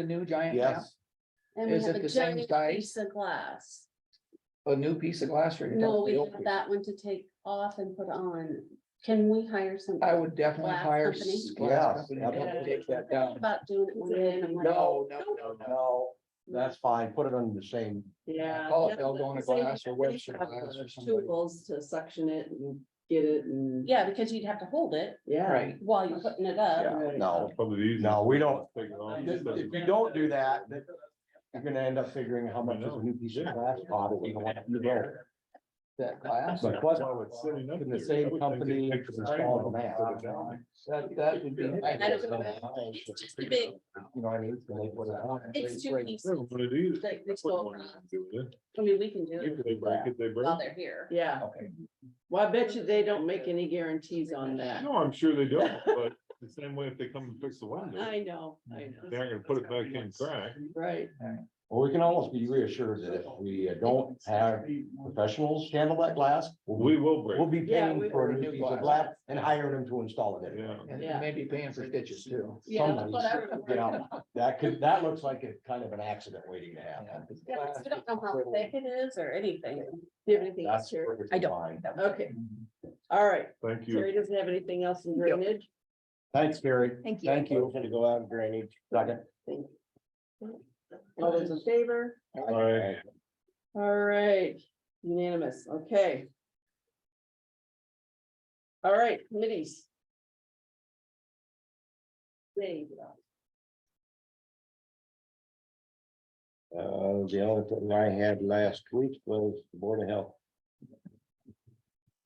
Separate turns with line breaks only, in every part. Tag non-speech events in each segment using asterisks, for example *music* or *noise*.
the new giant map,
Yes,
And we
Is
have
it
a
the same
giant
size?
piece of glass.
a new piece of glass or? you're talking
No,
about
we
the old
have
piece?
that one to take off and put on. Can we hire some?
I would definitely
Glass
hire.
company?
s- glass
Yes,
company to help
absolutely.
Take that down.
About doing it one day and I'm like.
No, no, no, no.
no, that's fine, put it under the same,
Yeah.
Call it
that's what
Eldona
I'm saying,
glass or
they
Webster
have
glass or
the
somebody.
Tools to suction it and get it and,
Yeah, because you'd have to hold it
yeah.
Right.
while you're putting it up.
yeah, no,
Probably easy.
no, we don't.
Take it off.
If if you don't do that, then you're gonna end up figuring how much is a new piece of glass pot. that we don't want to go.
That glass,
But what, can the same company install the map?
that, that would be.
I don't know. It's too big.
You know what I mean? When they put it on.
It's two pieces.
What it is.
They- they
That's
go
what
around.
you want to do
I mean, we can do
with
it
it. If they break it, they break
while
it.
they're here.
Yeah,
Okay.
well, I bet you they don't make any guarantees on that.
No, I'm sure they don't,
*laughs*
but the same way if they come and fix the window,
I know, I know,
they're not gonna put it back in crack.
right,
Well, we can almost be reassured that if we uh, don't have professionals handle that glass, we'll be,
We will
we'll
break.
be
Yeah, we-
paying for a new piece of glass and hiring them to install it.
it. Yeah.
And
Yeah.
maybe paying for stitches too.
Yeah, that's
Somebody's-
what I remember.
Yeah, that could, that looks like a kind of an accident waiting to happen.
Yeah, because we don't know how thick it is or anything.
do you have anything else
That's
here?
perfectly
I don't.
fine.
Okay, all right,
Thank you.
Terry doesn't have anything else in drainage?
Thanks, Gary.
Thank
Thank you. Gonna go out and drainage. Second.
All those in favor?
All right.
All right, unanimous, okay. All right, committees. Dave,
Uh, the only thing I had last week was the Board of Health.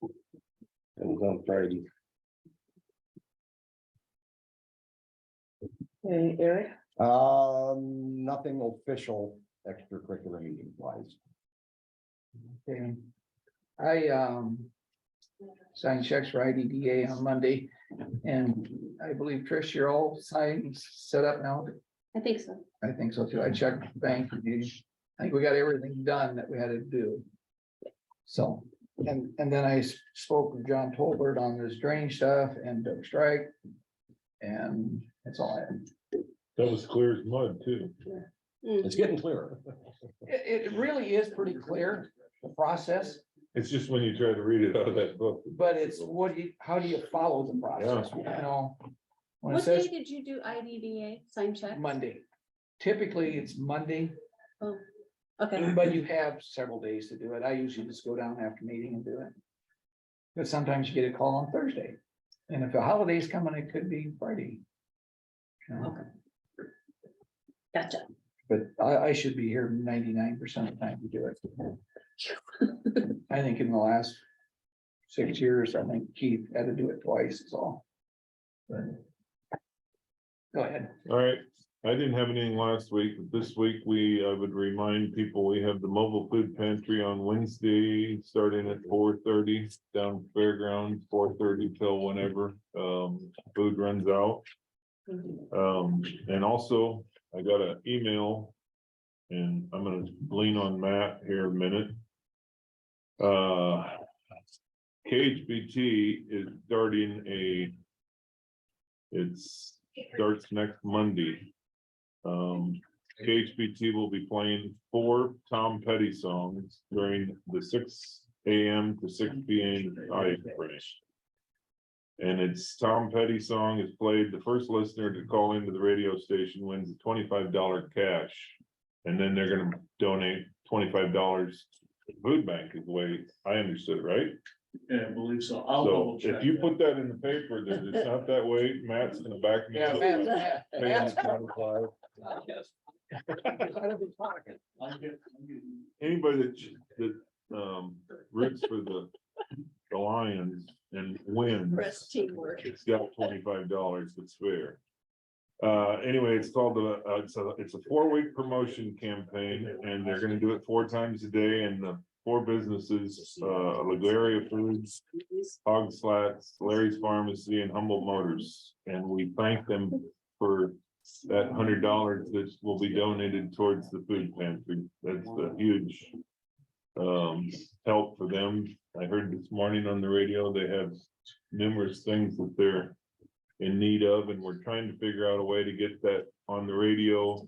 It was on Friday.
Hey, Eric,
Um, nothing official extracurricular meeting wise.
Okay. I, um, signed checks for IDDA on Monday and I believe Trish, you're all signed, set up now.
I think so.
I think so too. I checked the bank. I think we got everything done that we had to do. So, and, and then I spoke with John Tolbert on this drainage stuff and Doug Strike. And that's all I have.
That was clear as mud too.
It's getting clearer.
It, it really is pretty clear, the process,
It's just when you try to read it out of that book.
but it's what do you, how do you follow the process, you know? When it
What day
says
did you do IDDA sign check?
Monday, typically it's Monday,
Oh, Okay,
but you have several days to do it. I usually just go down after meeting and do it. But sometimes you get a call on Thursday, and if the holiday's coming, it could be Friday. You know,
gotcha.
But I, I should be here ninety-nine percent of the time to do it. I think in the last six years, I think Keith had to do it twice, is all. But- Go ahead.
All right, I didn't have anything last week, but this week we, I would remind people, we have the mobile food pantry on Wednesday, starting at four thirty. Down fairground, four thirty till whenever, um, food runs out.
Mm-hmm.
Um, and also, I got an email. And I'm gonna lean on Matt here a minute. Uh. KHBT is starting a. It's starts next Monday. Um, KHBT will be playing four Tom Petty songs during the six AM to six PM time frame. And it's Tom Petty song is played, the first listener to call into the radio station wins a twenty-five dollar cash. And then they're gonna donate twenty-five dollars to food bank is the way I understood, it, right?
Yeah, I believe so. I'll
So
double check.
if you
that.
put that in the paper, that it's not that way, Matt's gonna back me up.
Matt,
Paying
*laughs*
Matt,
$25.
Matt's out of his pocket.
I'll get- I'll get-
anybody that, ch- that, um, roots for the, the Lions and wins.
rest teamwork.
It's got twenty-five dollars, it's fair. Uh, anyway, it's called the, uh, it's a, it's a four-week promotion campaign, and they're gonna do it four times a day, and the four businesses, uh, Lagaria Foods, Hog Slats, Larry's Pharmacy, and Humboldt Motors, and we thank them for that hundred dollars that will be donated towards the food pantry. That's a huge um, help for them. I heard this morning on the radio, they have numerous things that they're in need of, and we're trying to figure out a way to get that on the radio.